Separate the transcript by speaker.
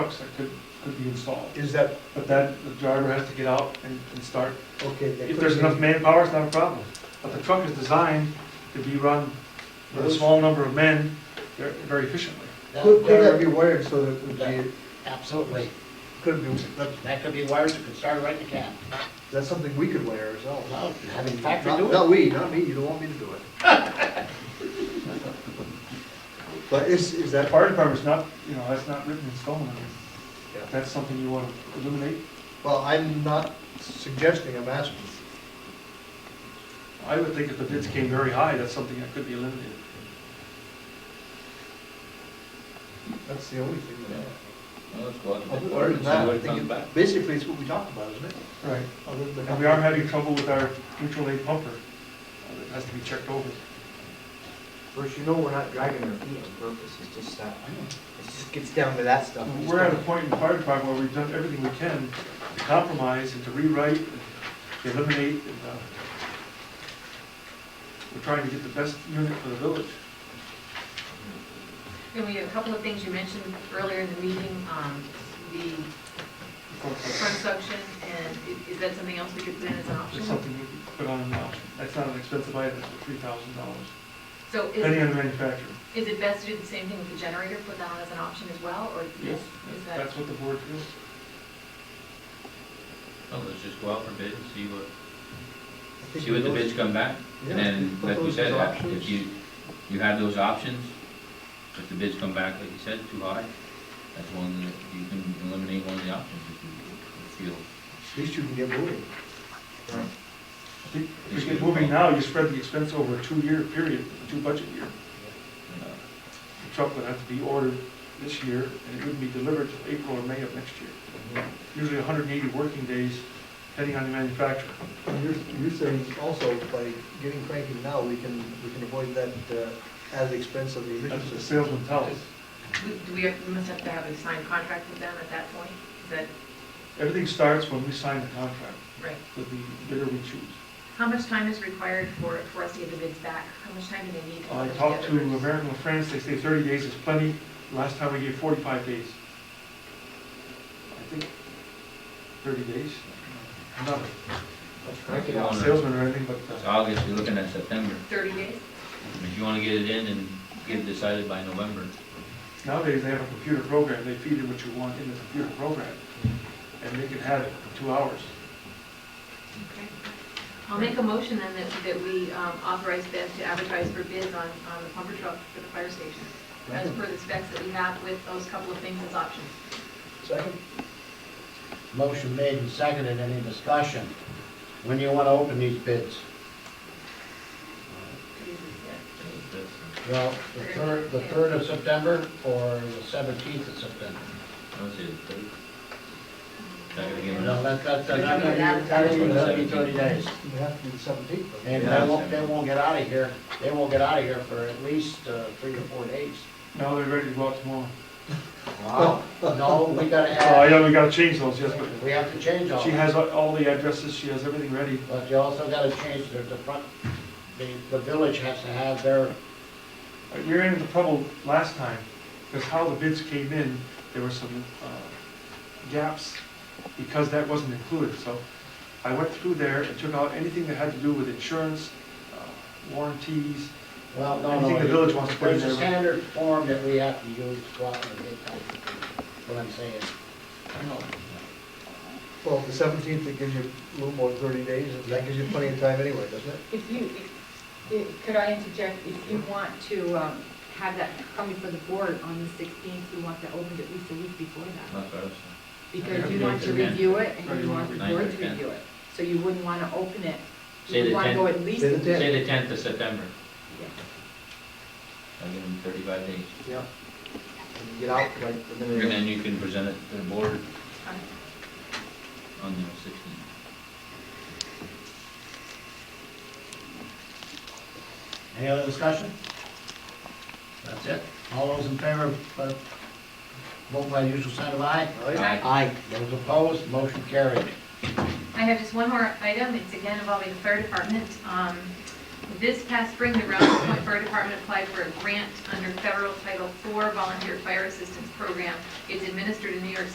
Speaker 1: trucks that could, could be installed.
Speaker 2: Is that,
Speaker 1: But then the driver has to get out and, and start.
Speaker 2: okay, that
Speaker 1: If there's
Speaker 2: could
Speaker 1: enough
Speaker 2: be,
Speaker 1: manpower, it's not a problem. But the truck is designed to be run with a small number of men very very efficiently.
Speaker 3: That-
Speaker 2: could, could that
Speaker 3: there-
Speaker 2: be wired so that it would be,
Speaker 3: Absolutely.
Speaker 2: could be, that,
Speaker 3: That could be wired, you could start right in the cab.
Speaker 2: that's something we could wire ourselves.
Speaker 3: Well, have the factory
Speaker 2: Not-
Speaker 3: do it.
Speaker 2: Not we, not me, you don't want me to do it. But is, is
Speaker 1: The
Speaker 2: that part,
Speaker 1: fire department's not, you know, that's not written in stone. I mean,
Speaker 2: Yeah.
Speaker 1: If that's something you want to eliminate,
Speaker 2: well, I'm not suggesting, I'm asking.
Speaker 1: I would think if the bids came very high, that's something that could be eliminated.
Speaker 2: That's the only thing that I
Speaker 4: Well, let's go out and
Speaker 2: Other
Speaker 4: take
Speaker 2: than
Speaker 4: orders and
Speaker 2: that,
Speaker 4: see
Speaker 2: I
Speaker 4: what
Speaker 2: think
Speaker 4: comes back.
Speaker 2: it- basically it's what we talked about, isn't it?
Speaker 1: Right.
Speaker 2: Other than the-
Speaker 1: And we are having trouble with our mutual aid pumper. Uh, That has to be checked over.
Speaker 5: Bruce, you know we're not dragging our feet on purpose, it's just that, it just gets down to that stuff.
Speaker 1: We're at a point in the fire department where we've done everything we can to compromise and to rewrite and to eliminate and, uh, we're trying to get the best unit for the village.
Speaker 6: And we have a couple of things you mentioned earlier in the meeting, um, the front suction, and i- is that something else we could put in as an
Speaker 1: It's
Speaker 6: option?
Speaker 1: something we could put on now. That's not an expensive item, it's three thousand dollars,
Speaker 6: So
Speaker 1: depending
Speaker 6: is,
Speaker 1: on the manufacturer.
Speaker 6: is it best to do the same thing with the generator, put that on as an option as well, or is is that?
Speaker 1: That's what the board feels.
Speaker 4: Well, let's just go out for bid and see what,
Speaker 2: I think
Speaker 4: see what the
Speaker 2: those-
Speaker 4: bids come back.
Speaker 2: Yeah,
Speaker 4: And then,
Speaker 2: put
Speaker 4: like we
Speaker 2: those
Speaker 4: said,
Speaker 2: as
Speaker 4: if
Speaker 2: options.
Speaker 4: you, you have those options, if the bids come back, like you said, too high, that's one that you can eliminate one of the options if you feel.
Speaker 2: At least you can get moving.
Speaker 1: I think If you get moving now, you spread the expense over a two-year period, a two-budget year. Uh, The truck would have to be ordered this year, and it wouldn't be delivered till April or May of next year. Usually 180 working days, depending on the manufacturer.
Speaker 2: And You're, you're saying also by getting cranky now, we can, we can avoid that, uh, at the expense of the
Speaker 1: That's what the
Speaker 2: emission system.
Speaker 1: salesman tells us.
Speaker 6: We- Do we have- we must have to have a signed contract with them at that point? Is that,
Speaker 1: Everything starts when we sign the contract
Speaker 6: right?
Speaker 1: with the bidder we choose.
Speaker 6: How much time is required for, for us to get the bids back? How much time do they need?
Speaker 1: I
Speaker 6: for the
Speaker 1: talked to
Speaker 6: other bids?
Speaker 1: American La France, they say 30 days is plenty. Last time we gave 45 days. I think 30 days, I'm not
Speaker 4: If you
Speaker 1: a
Speaker 4: wanna-
Speaker 1: salesman or anything, but
Speaker 4: It's
Speaker 1: uh,
Speaker 4: August, you're looking at September.
Speaker 6: Thirty days?
Speaker 4: If you wanna get it in and get it decided by November,
Speaker 1: nowadays they have a computer program, they feed in what you want in the computer program, and they can have it in two hours.
Speaker 6: Okay. I'll make a motion then that, that we um, authorize Bev to advertise for bids on, on the pumper truck for the fire station, as per the specs that we have with those couple of things as options.
Speaker 2: Second?
Speaker 3: Motion made and seconded, any discussion? When you want to open these bids?
Speaker 4: so uh, that's,
Speaker 3: Well, the third, the third of September or the seventeenth of September?
Speaker 4: I would say the third. Not gonna give it
Speaker 3: No,
Speaker 4: up.
Speaker 3: that, that, that,
Speaker 6: Not gonna be-
Speaker 3: that, that even gonna be thirty days.
Speaker 2: You have to do the seventeenth.
Speaker 3: And they won't, they won't get out of here, they won't get out of here for at least uh, three or four days.
Speaker 1: Now they're ready to go out tomorrow.
Speaker 3: Wow. No, we gotta
Speaker 1: Oh,
Speaker 3: add,
Speaker 1: yeah, we gotta change those, yes, but
Speaker 3: we have to change all
Speaker 1: she
Speaker 3: that.
Speaker 1: has all- all the addresses, she has everything ready.
Speaker 3: But you also gotta change the, the front, the, the village has to have their,
Speaker 1: Uh, We ran into trouble last time, because how the bids came in, there were some uh, gaps, because that wasn't included, so I went through there and took out anything that had to do with insurance, uh, warranties,
Speaker 3: well, no, no.
Speaker 1: Anything the village wants to put in
Speaker 3: There's a
Speaker 1: there.
Speaker 3: standard form that we have to use throughout the bid process, what I'm saying.
Speaker 2: Well, the seventeenth, it gives you a little more than thirty days, and that gives you plenty of time anyway, doesn't it?
Speaker 7: If you, if- if- could I interject, if you want to um, have that coming for the board on the 16th, you want to open it at least a week before that,
Speaker 4: Not for us.
Speaker 7: because you want to review it and you want the board to review it, so you wouldn't want to open it.
Speaker 4: Say the
Speaker 7: You want to
Speaker 4: 10th.
Speaker 7: go at least,
Speaker 2: Say the tenth.
Speaker 4: Say the tenth of September.
Speaker 7: Yeah.
Speaker 4: I'll give them thirty-five days.
Speaker 2: Yeah. And you get out like the
Speaker 4: And
Speaker 2: minute.
Speaker 4: then you can present it to the board on the sixteenth.
Speaker 3: Any other discussion? That's it. All those in favor, uh, vote by usual sign of aye. Aye. Those opposed, motion carried.
Speaker 6: I have just one more item, it's again involving the fire department. Um, This past spring, the Rouse Point Fire Department applied for a grant under federal Title IV Volunteer Fire Assistance Program. It's administered in New York